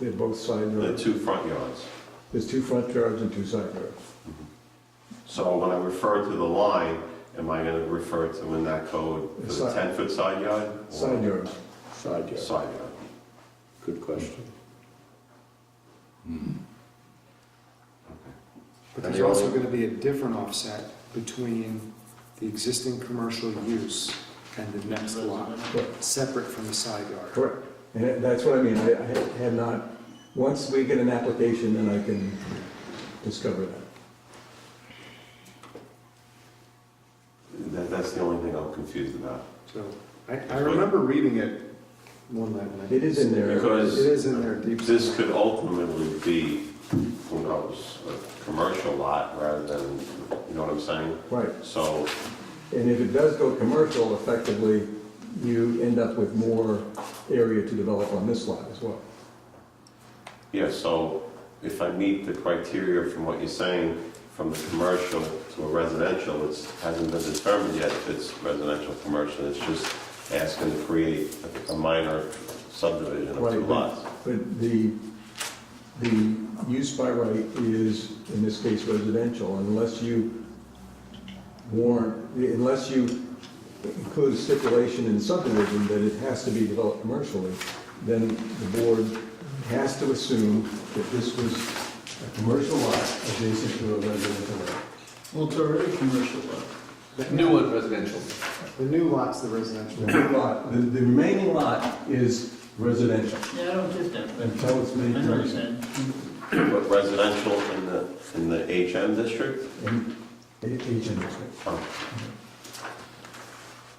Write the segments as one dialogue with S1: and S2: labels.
S1: They're both side
S2: the
S1: yards.
S2: two front yards.
S1: There's two front yards and two side yards.
S2: So when I refer to the line, am I gonna refer to in that code to the
S1: Side.
S2: ten-foot side yard? or
S1: Side yards.
S3: Side yard,
S2: Side yard.
S3: good question.
S4: But there's also gonna be a different offset between the existing commercial use and the next lot,
S1: Correct.
S4: separate from the side yard.
S1: Correct. And that's what I mean, I I have not, once we get an application, then I can discover that.
S2: That, that's the only thing I'm confused about.
S4: So, I, I remember reading it one night. when I-
S1: It is in there.
S4: It
S2: Because
S4: is in there deep.
S2: this could ultimately be, who knows, a commercial lot rather than, you know what I'm saying?
S1: Right.
S2: So,
S1: And if it does go commercial, effectively, you end up with more area to develop on this lot as well.
S2: yeah, so if I meet the criteria from what you're saying, from the commercial to a residential, it hasn't been determined yet if it's residential, or commercial, it's just asking to create a- a minor subdivision of
S1: Right,
S2: two
S1: but-
S2: lots.
S1: But the, the use by right is, in this case, residential, unless you warrant, unless you include a stipulation in subdivision that it has to be developed commercially, then the board has to assume that this was a commercial lot adjacent to a residential lot.
S5: Well, it's already commercial, but
S6: New and residential.
S4: The new lot's the residential.
S1: The big lot, the, the remaining lot is residential
S5: yeah, I don't get that.
S1: until it's
S5: I
S1: made
S5: know what you're
S1: commercial.
S5: saying.
S2: But residential in the, in the HM district?
S1: And it- it's interesting.
S2: But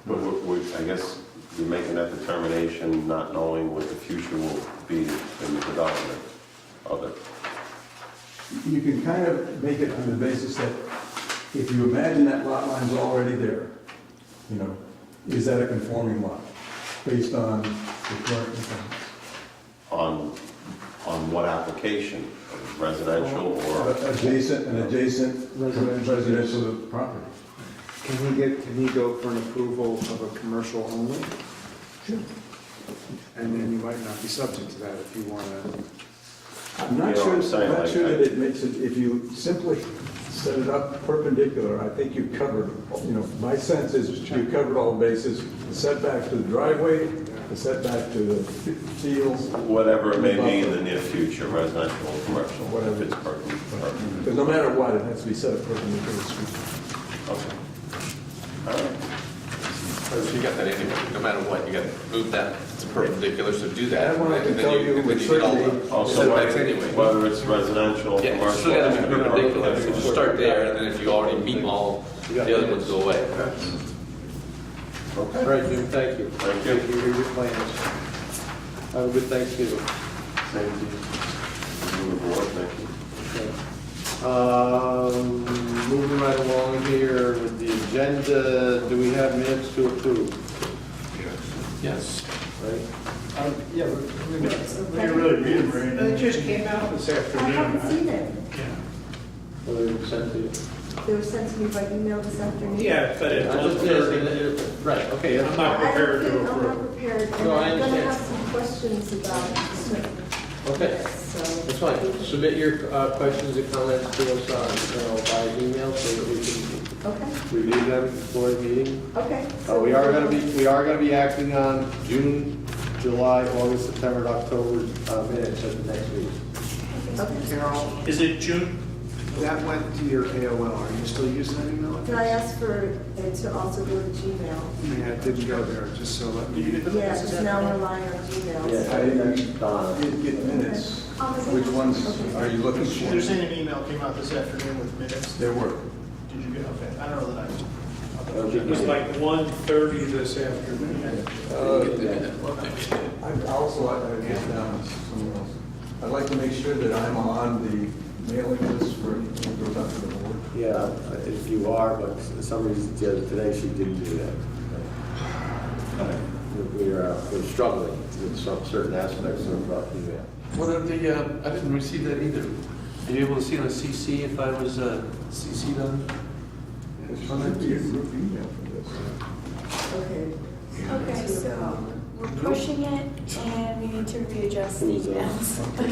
S2: we- we- I guess you're making that determination not knowing what the future will be in the development of it.
S1: you can kind of make it on the basis that if you imagine that lot line's already there, you know, is that a conforming lot based on the current requirements?
S2: On, on what application, residential or?
S1: Or Adjacent, an adjacent
S4: Residential.
S1: residential property.
S4: Can we get, can we go for an approval of a commercial only? And then you might not be subject to that if you wanna,
S1: I'm
S2: You
S1: not
S2: know what
S1: sure,
S2: I'm saying,
S1: not
S2: like,
S1: sure
S2: I-
S1: that it makes it, if you simply set it up perpendicular, I think you've covered, you know, my sense is you've covered all bases, the setback to the driveway, the setback to the fields,
S2: Whatever it may be in the near future, residential or commercial, if it's pertinent. pertinent.
S1: Because no matter what, it has to be set up perpendicular to the street.
S2: Okay. All right.
S6: You got that anyway, no matter what, you gotta move that, it's perpendicular, so do that.
S1: That one I can
S6: and then
S1: tell you
S6: and then
S1: with
S6: get all the
S1: certainty.
S2: Also,
S6: Setbacks
S2: whether
S6: anyway.
S2: whether it's residential,
S6: Yeah, you
S2: commercial.
S6: still gotta
S2: it's
S6: be
S2: gonna be
S6: perpendicular, so
S2: perpendicular.
S6: just start there, and then if you already meet all, the other ones go away.
S2: Okay.
S7: All right, Jim, thank you.
S2: Thank you.
S7: Thank you for your plans. Have a good Thanksgiving.
S2: Same to you. Move the board, thank you.
S7: Okay. Um, Moving right along here with the agenda, do we have minutes to approve?
S6: Yes.
S7: Right?
S4: yeah,
S8: really read it, Brandon. It just came out this
S9: I haven't
S8: afternoon.
S9: seen it.
S7: Or they were sent to you?
S9: They were sent to me by email this afternoon.
S8: Yeah, but it
S7: I
S8: was,
S7: just-
S8: very-
S7: yes, Right, okay.
S8: I'm
S7: yeah.
S8: not
S9: I
S8: prepared
S9: don't
S8: to
S9: think, I'm not
S8: approve.
S9: prepared, and
S7: No, I
S9: I'm gonna
S7: understand.
S9: have some questions about certain
S7: Okay.
S9: bits, so.
S7: That's fine. Submit your uh, questions and comments to us on, uh, by email so that we
S9: Okay,
S7: can review them before the meeting.
S9: okay.
S7: Uh, we are gonna be, we are gonna be acting on June, July, August, September, and October uh, minutes at the next meeting.
S9: Okay.
S4: Carol,
S8: Is it June?
S4: that went to your AOL, are you still using that email?
S9: Can I ask for it to also go to Gmail?
S4: Yeah, it didn't go there, just so let me.
S9: Yeah, because now I'm relying on Gmail. so-
S1: I didn't
S7: Donna.
S1: get minutes.
S9: Oh, is it?
S1: Which ones
S9: Okay.
S1: are you looking
S8: They're
S1: for?
S8: saying an email came out this afternoon with minutes.
S1: There were.
S8: Did you get, okay, I don't know that I.
S7: Okay.
S8: It was like one thirty this afternoon.
S7: Uh,
S1: Uh, I also, I I guess, um, someone else. I'd like to make sure that I'm on the mailing list for, it goes out to the board.
S3: Yeah, if you are, but for some reason, the other- today she didn't do that. We're, uh, we're struggling with some certain aspects of uh, email.
S6: What are the, uh, I didn't receive that either. Are you able to see on a CC if I was uh, CC'd on?
S1: It should be a group email for this.
S9: Okay. Okay, so.
S10: we're pushing it, and we need to readjust the emails.